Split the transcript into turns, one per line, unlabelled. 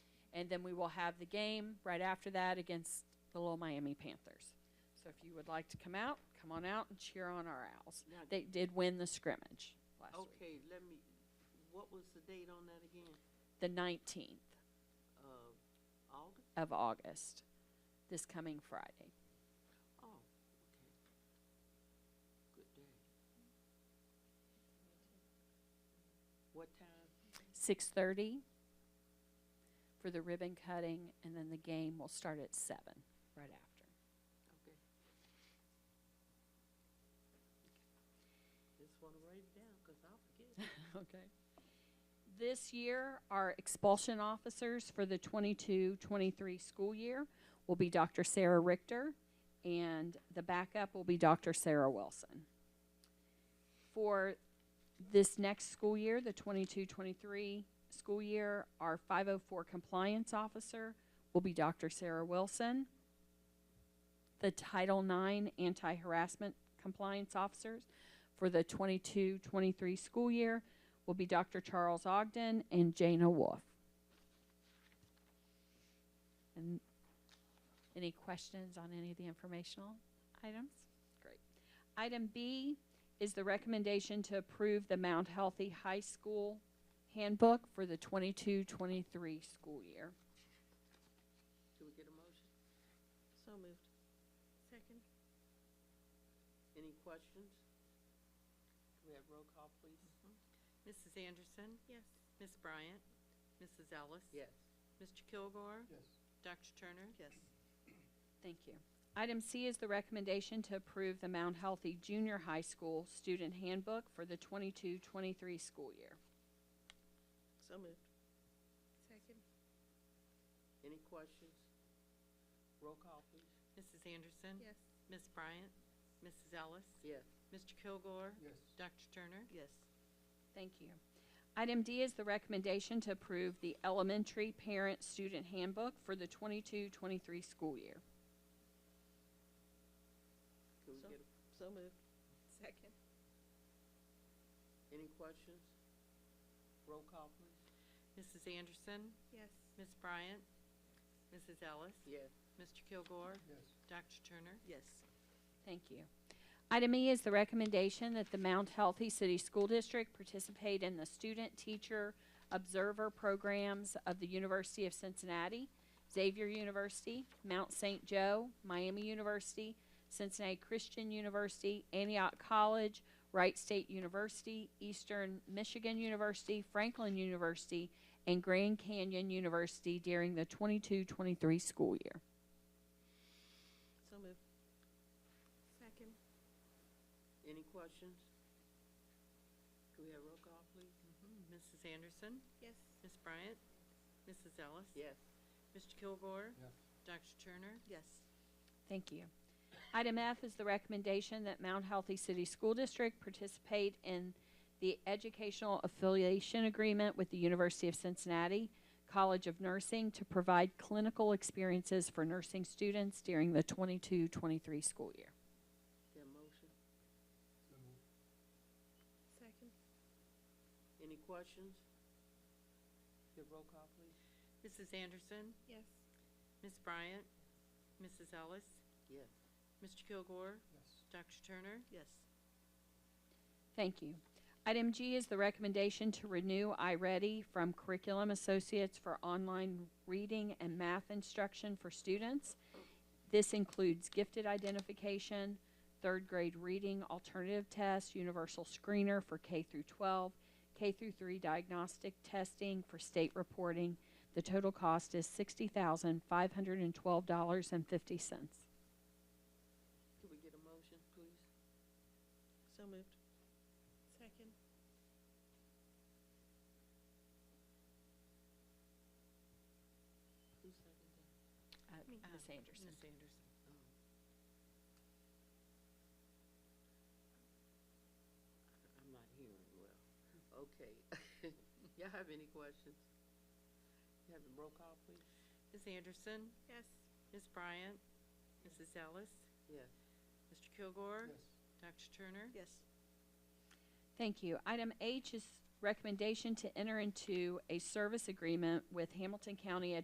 And then we will have the game right after that against the Little Miami Panthers. So if you would like to come out, come on out and cheer on our Owls.
Now,
They did win the scrimmage last week,
okay, let me, what was the date on that again?
the 19th
Uh, August?
of August, this coming Friday.
Oh, okay. Good day. What time?
6:30 for the ribbon cutting, and then the game will start at 7 right after.
Okay. Just wanna write it down, cause I'll forget.
Okay. This year, our expulsion officers for the 22-23 school year will be Dr. Sarah Richter, and the backup will be Dr. Sarah Wilson. For this next school year, the 22-23 school year, our five oh four compliance officer will be Dr. Sarah Wilson. The Title IX anti-harassment compliance officers for the 22-23 school year will be Dr. Charles Ogden and Jana Wolf. And any questions on any of the informational items? Great. Item B is the recommendation to approve the Mount Healthy High School handbook for the 22-23 school year.
Do we get a motion?
So moved. Second?
Any questions? Do we have roll call, please?
Mrs. Mm-hmm. Anderson? Yes. Ms. Bryant? Mrs. Ellis?
Yes.
Mr. Kilgore?
yes,
Dr. Turner?
Yes.
Thank you. Item C is the recommendation to approve the Mount Healthy Junior High School student handbook for the 22-23 school year.
So moved. Second?
Any questions? Roll call, please.
Mrs. Anderson? Yes. Ms. Bryant? Mrs. Ellis?
Yes.
Mr. Kilgore?
yes,
Dr. Turner?
Yes.
Thank you. Item D is the recommendation to approve the elementary parent-student handbook for the 22-23 school year.
Can we
So-
get,
So moved. Second?
a- any questions? Roll call, please.
Mrs. Anderson?
Yes,
Ms. Bryant? Mrs. Ellis?
Yes.
Mr. Kilgore?
yes,
Dr. Turner?
Yes.
Thank you. Item E is the recommendation that the Mount Healthy City School District participate in the Student Teacher Observer Programs of the University of Cincinnati, Xavier University, Mount St. Joe, Miami University, Cincinnati Christian University, Antioch College, Wright State University, Eastern Michigan University, Franklin University, and Grand Canyon University during the 22-23 school year.
So moved.
second,
Any questions? Do we have roll call, please?
Mrs. Anderson?
yes,
Ms. Bryant? Mrs. Ellis?
Yes.
Mr. Kilgore?
yes,
Dr. Turner?
Yes.
Thank you. Item F is the recommendation that Mount Healthy City School District participate in the Educational Affiliation Agreement with the University of Cincinnati College of Nursing to provide clinical experiences for nursing students during the 22-23 school year.
There a motion?
so moved,
second,
Any questions? Get roll call, please?
Mrs. Anderson?
yes,
Ms. Bryant? Mrs. Ellis?
Yes.
Mr. Kilgore?
yes,
Dr. Turner?
Yes.
Thank you. Item G is the recommendation to renew iReady from Curriculum Associates for online reading and math instruction for students. This includes gifted identification, third grade reading alternative tests, universal screener for K through 12, K through 3 diagnostic testing for state reporting. The total cost is $60,512.50.
Can we get a motion, please?
So moved.
second,
Who seconded
Uh,
Me.
Ms. Anderson.
Ms. Um, Anderson.
that? Oh. I'm not hearing well. Okay. Y'all have any questions? You have a roll call, please?
Ms. Anderson?
yes,
Ms. Bryant? Mrs. Ellis?
Yes.
Mr. Kilgore?
yes,
Dr. Turner?
Yes.
Thank you. Item H is recommendation to enter into a service agreement with Hamilton County